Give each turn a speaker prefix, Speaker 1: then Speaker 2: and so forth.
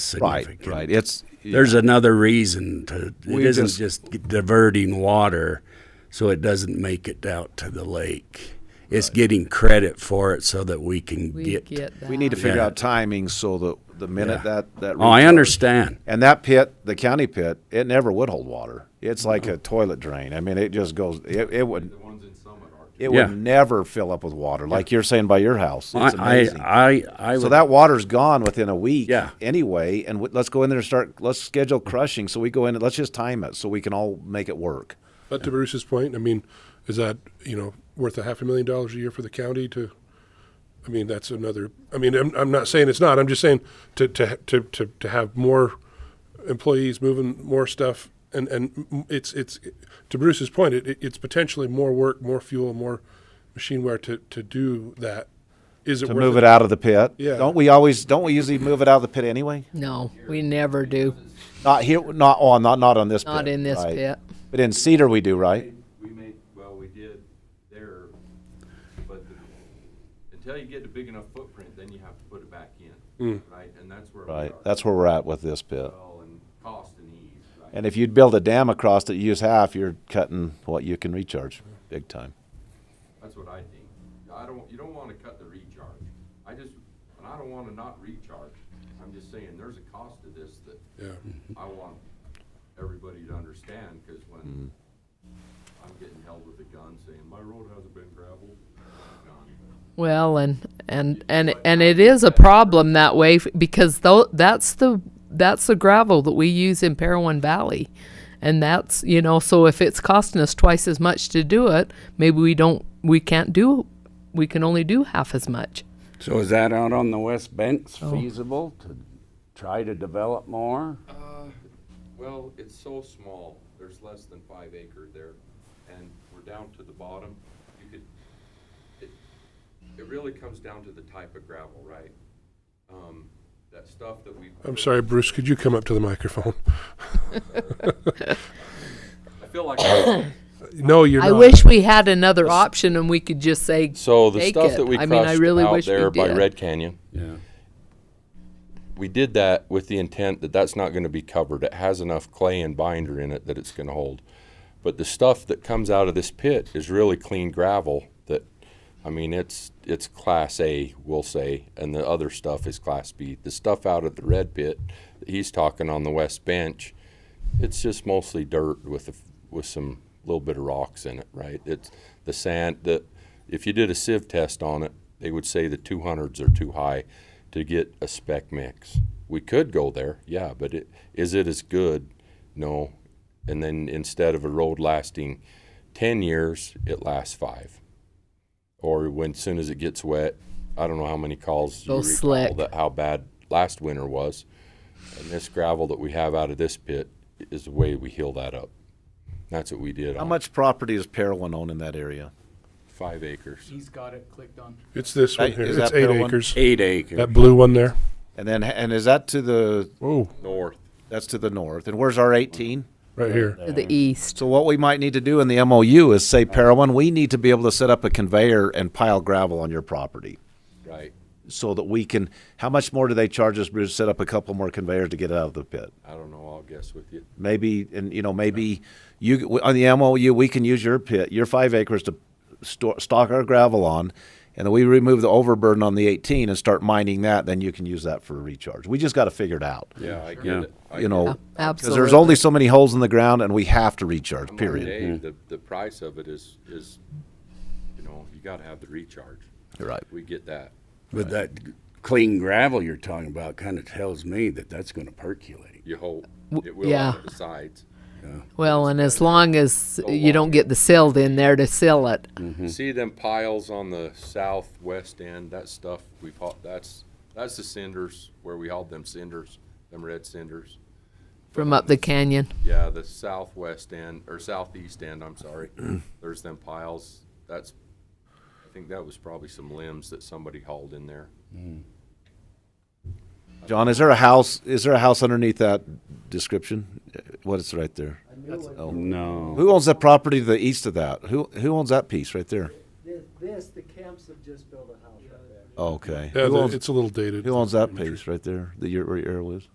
Speaker 1: significant.
Speaker 2: Right, right. It's
Speaker 1: There's another reason to, it
Speaker 2: We've
Speaker 1: isn't
Speaker 2: just-
Speaker 1: just diverting water so it doesn't make it out to the lake. It's getting credit for it so that we can
Speaker 3: We
Speaker 1: get.
Speaker 3: get that.
Speaker 2: we need to figure
Speaker 1: Yeah.
Speaker 2: out timing so that the minute
Speaker 1: Yeah.
Speaker 2: that that
Speaker 1: Oh, I
Speaker 2: recharge-
Speaker 1: understand.
Speaker 2: And that pit, the county pit, it never would hold water. It's like a toilet drain. I mean, it just goes. It, it would. It
Speaker 1: Yeah.
Speaker 2: would never fill up with water, like you're saying by your house. It's
Speaker 1: I,
Speaker 2: amazing.
Speaker 1: I, I, I
Speaker 2: so
Speaker 1: would-
Speaker 2: that water's gone within a week.
Speaker 1: Yeah.
Speaker 2: Anyway, and w- let's go in there and start. Let's schedule crushing. So we go in and let's just time it so we can all make it work.
Speaker 4: But to Bruce's point, I mean, is that, you know, worth a half a million dollars a year for the county to, I mean, that's another, I mean, I'm, I'm not saying it's not, I'm just saying to, to, to, to, to have more employees moving more stuff and, and m- it's, it's, to Bruce's point, it, it's potentially more work, more fuel, more machine wear to, to do that. Is it
Speaker 2: To
Speaker 4: worth
Speaker 2: move it out of the pit.
Speaker 4: Yeah.
Speaker 2: Don't we always? Don't we usually move it out of the pit anyway?
Speaker 3: No, we never do.
Speaker 2: Not here. Not on. Not not on this.
Speaker 3: Not
Speaker 2: pit,
Speaker 3: in this
Speaker 2: right.
Speaker 3: pit.
Speaker 2: But in Cedar, we do right.
Speaker 5: We made, well, we did there, but the- until you get a big enough footprint, then you have to put it back in, right? And that's where we
Speaker 2: Hmm. Right.
Speaker 5: are.
Speaker 2: That's where we're at with this pit.
Speaker 5: Well, and cost and ease, right?
Speaker 2: And if you'd build a dam across that you use half, you're cutting what you can recharge big time.
Speaker 5: That's what I think. I don't, you don't wanna cut the recharge. I just, and I don't wanna not recharge. I'm just saying, there's a cost to this that
Speaker 4: Yeah.
Speaker 5: I want everybody to understand, cause
Speaker 2: Hmm.
Speaker 5: when I'm getting held with a gun saying, my road hasn't been gravelled, gone.
Speaker 3: Well, and and and and it is a problem that way f- because though that's the that's the gravel that we use in Parowan Valley, and that's you know so if it's costing us twice as much to do it, maybe we don't we can't do we can only do half as much.
Speaker 1: So is that out on the West Banks feasible to try to develop more?
Speaker 5: Well, it's so small, there's less than five acre there, and we're down to the bottom. You could, it, it really comes down to the type of gravel, right? Um, that stuff that we.
Speaker 4: I'm sorry, Bruce, could you come up to the microphone?
Speaker 5: I feel like. I'm-
Speaker 4: No, you're
Speaker 3: I
Speaker 4: not.
Speaker 3: wish we had another option and we could just say
Speaker 5: So the
Speaker 3: Take
Speaker 5: stuff
Speaker 3: it.
Speaker 5: that we
Speaker 3: I mean, I
Speaker 5: crushed
Speaker 3: really
Speaker 5: out
Speaker 3: wish we
Speaker 5: there by
Speaker 3: did.
Speaker 5: Red Canyon,
Speaker 1: Yeah.
Speaker 5: we did that with the intent that that's not going to be covered. It has enough clay and binder in it that it's going to hold. But the stuff that comes out of this pit is really clean gravel. That, I mean, it's it's class A, we'll say, and the other stuff is class B. The stuff out of the red pit that he's talking on the west bench, it's just mostly dirt with a, with some little bit of rocks in it, right? It's the sand that if you did a sieve test on it, they would say the 200s are too high to get a spec mix. We could go there, yeah, but it, is it as good? No. And then instead of a road lasting 10 years, it lasts five. Or when soon as it gets wet, I don't know how many calls you
Speaker 3: Go
Speaker 5: recall
Speaker 3: slick.
Speaker 5: that how bad last winter was. And this gravel that we have out of this pit is the way we heal that up. That's what we did
Speaker 2: How
Speaker 5: on
Speaker 2: much property is Parowan own in that area?
Speaker 5: five acres.
Speaker 6: He's got it clicked on.
Speaker 4: It's this one
Speaker 2: That-
Speaker 4: here.
Speaker 2: is
Speaker 4: It's
Speaker 2: that
Speaker 4: eight
Speaker 2: Parowan?
Speaker 4: acres.
Speaker 1: Eight acres.
Speaker 4: That blue one there.
Speaker 2: And then, and is that to the,
Speaker 4: Oh,
Speaker 5: North.
Speaker 2: that's to the north? And where's our 18?
Speaker 4: right here.
Speaker 3: to the east.
Speaker 2: So what we might need to do in the MOU is say, Parowan, we need to be able to set up a conveyor and pile gravel on your property.
Speaker 5: Right.
Speaker 2: So that we can, how much more do they charge us, Bruce, to set up a couple more conveyors to get it out of the pit?
Speaker 5: I don't know. I'll guess with you.
Speaker 2: Maybe, and you know, maybe you on the MOU, we can use your pit, your five acres to store, stock our gravel on, and then we remove the overburden on the 18 and start mining that. Then you can use that for a recharge. We just got to figure it out.
Speaker 5: Yeah, I get
Speaker 1: Yeah.
Speaker 5: it. I
Speaker 2: You know,
Speaker 3: Yeah,
Speaker 2: because there's only so many holes in the ground, and we have to recharge.
Speaker 5: I'm like
Speaker 2: Period.
Speaker 5: Dave, the, the price of it is, is, you know, you gotta have the recharge.
Speaker 2: You're right.
Speaker 5: We get that.
Speaker 1: But that clean gravel you're talking about kind of tells me that that's going to percolate.
Speaker 5: You hope.
Speaker 3: W-
Speaker 5: It will out
Speaker 3: yeah.
Speaker 5: of the sides.
Speaker 3: Well, and as long as you don't get the silt in there to seal it,
Speaker 5: See them piles on the southwest end, that stuff we've hauled, that's, that's the cinders where we hauled them cinders, them red cinders.
Speaker 3: from up the canyon.
Speaker 5: Yeah, the southwest end, or southeast end, I'm sorry. There's them piles. That's, I think that was probably some limbs that somebody hauled in there.
Speaker 2: John, is there a house? Is there a house underneath that description? What is right there? Oh,
Speaker 1: No.
Speaker 2: Who owns that property to the east of that? Who who owns that piece right there?
Speaker 7: This, this, the camps have just built a house right there.
Speaker 2: Okay.
Speaker 4: Yeah,
Speaker 2: who,
Speaker 4: the-
Speaker 2: owns,
Speaker 4: it's a little dated.
Speaker 2: who owns that piece right there? The your, where your arrow is?